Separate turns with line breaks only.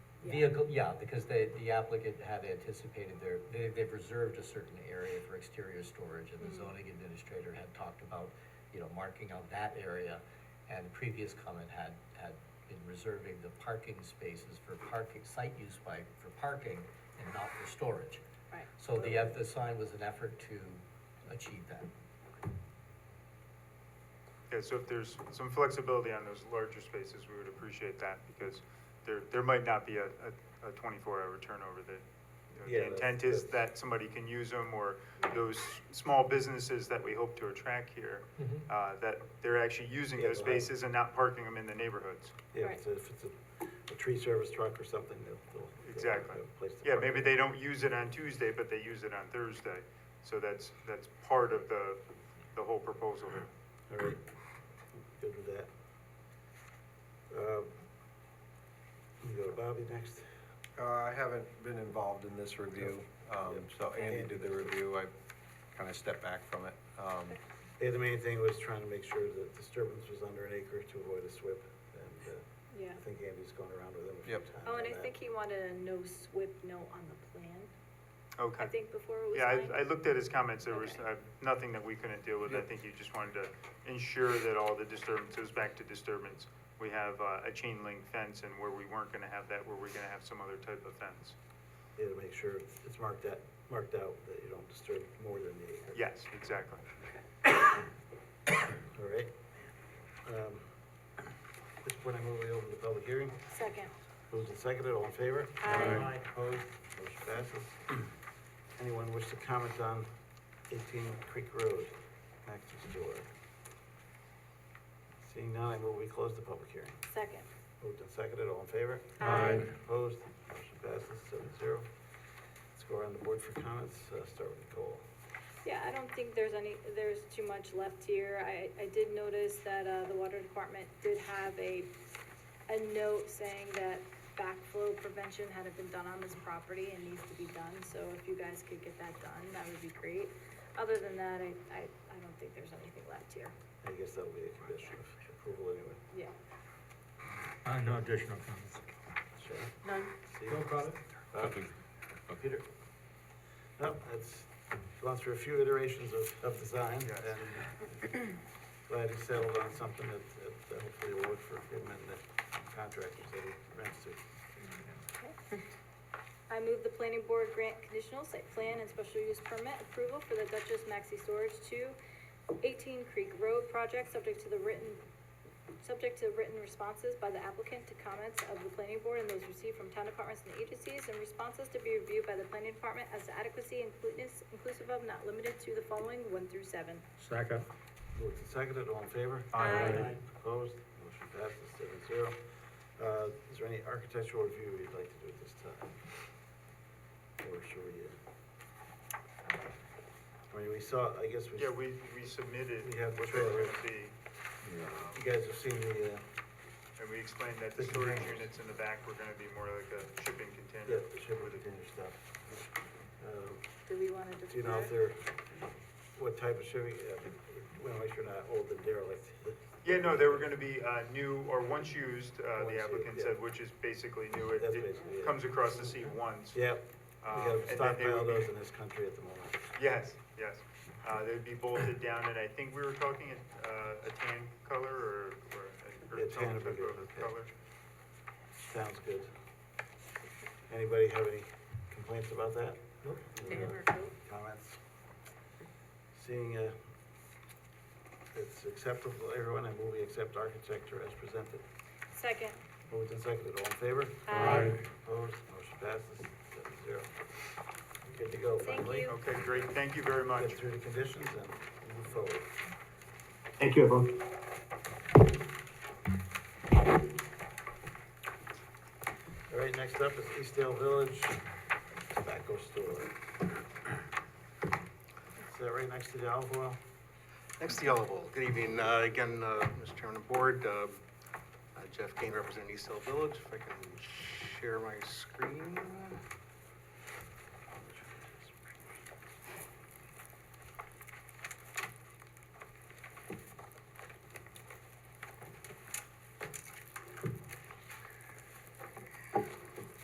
Yeah.
Vehicle, yeah, because they, the applicant had anticipated their, they, they've reserved a certain area for exterior storage, and the
Mm.
zoning administrator had talked about, you know, marking out that area, and the previous comment had, had been reserving the parking spaces for parking, site use by, for parking and not for storage.
Right.
So the, eff- the sign was an effort to achieve that.
Yeah, so if there's some flexibility on those larger spaces, we would appreciate that, because there, there might not be a, a, a twenty-four hour turnover that, you know,
Yeah,
the
that's-
intent is
that's-
that somebody can use them, or those small businesses that we hope to attract here,
Mm-hmm.
uh, that they're actually using
Yeah,
those
they'll have-
spaces and not parking them in the neighborhoods.
Yeah, if it's if it's a, a tree service truck or something, they'll, they'll. they'll
Exactly.
have a place to
Yeah,
park
maybe
it.
they don't use it on Tuesday, but they use it on Thursday, so that's, that's part of the, the whole proposal here.
All right, good with that. Um, You go to Bobby next.
Uh, I haven't been involved in this review, um, so Andy did the review, I kind of stepped back from it. Um,
Yeah, the main thing was trying to make sure that disturbance was under an acre to avoid a SWIP, and, uh,
Yeah.
I think Andy's gone around with him a few
Yep.
times.
Oh, and
on
I
that.
think he wanted a no SWIP note on the plan,
Okay.
I think before it was
Yeah,
signed.
I, I looked at his comments, there was
Okay.
uh, nothing that we couldn't deal with, I
Yep.
think you just wanted to ensure that all the disturbances, back to disturbance, we have uh, a chain link fence, and where we weren't gonna have that, where we're gonna have some other type of fence.
Yeah, to make sure it's marked out, marked out that you don't disturb more than the acre.
Yes, exactly.
All right. Um, At this point, I move we open the public hearing.
Second.
Moved and seconded, all in favor?
Aye.
Opposed, motion passes. Anyone wish to comment on eighteen Creek Road, access door? Seeing none, I move we close the public hearing.
Second.
Moved and seconded, all in favor?
Aye. Aye.
Opposed, motion passes, seven zero. Let's go around the board for comments, uh, start with Nicole.
Yeah, I don't think there's any, there's too much left here. I, I did notice that, uh, the water department did have a, a note saying that backflow prevention hadn't been done on this property and needs to be done, so if you guys could get that done, that would be great. Other than that, I, I, I don't think there's anything left here,
I guess that'll be a condition of approval anyway.
yeah.
Uh, no additional comments.
Sharon?
None.
Steve? Nothing. Peter? No, it's gone through a few iterations of, of design
Yes.
and glad he settled on something that, that hopefully will work for him and the contractors that he rents to.
I move the planning board grant conditional site plan and special use permit approval for the Duchess Maxi Storage to 18 Creek Road project, subject to the written, subject to written responses by the applicant to comments of the planning board and those received from town departments and agencies, and responses to be reviewed by the planning department as to adequacy and completeness, inclusive of not limited to the following one through seven.
Second.
Moved and seconded, all in favor?
Aye.
Opposed? Motion passes seven zero. Uh, is there any architectural review you'd like to do at this time? Or should we? uh, I mean, we saw, I guess we.
Yeah, we, we submitted
We have the
what they were
trailer.
gonna be,
You guys have seen the, uh,
and we explained that the
The
storage
containers.
units in the back were gonna be more like a shipping
Yeah,
container.
the shipping
with a-
container stuff. Um,
Do we want to
Do you know if
defer?
they're, what type of uh, shipping, we wanna make sure not old and derelict.
Yeah, no, they were gonna be, uh, new, or once used, uh,
Once
the
used,
applicant
yeah.
said, which is basically new, it,
That's
it
basically it.
comes across the sea once.
Yep,
Um,
we
and then
gotta
they
stockpile
would be-
those in this country at the moment.
Yes, yes. Uh, they'd be bolted down, and I think we were talking a, uh, a tan color or, or,
Yeah,
or
tan
some
would be
type
good,
of
okay.
color.
Sounds good. Anybody have any complaints about that? Nope. Comments? Seeing, uh, it's acceptable, to everyone, I move we accept architecture as presented.
Second.
Moved and seconded, all in favor?
Aye.
Opposed, motion passes, seven zero. Good to go,
Thank
finally.
you.
Okay, great. Thank you very much.
Get through the conditions and move forward.
Thank you, everyone.
All right, next up is Eastdale Village Tobacco Store. Is that right next to the olive oil?
Next, the Yellow Bowl. Good evening, uh, again, uh, Mr. Chairman and Board. uh, Jeff Kane representing East Hill Village. If I can share my screen.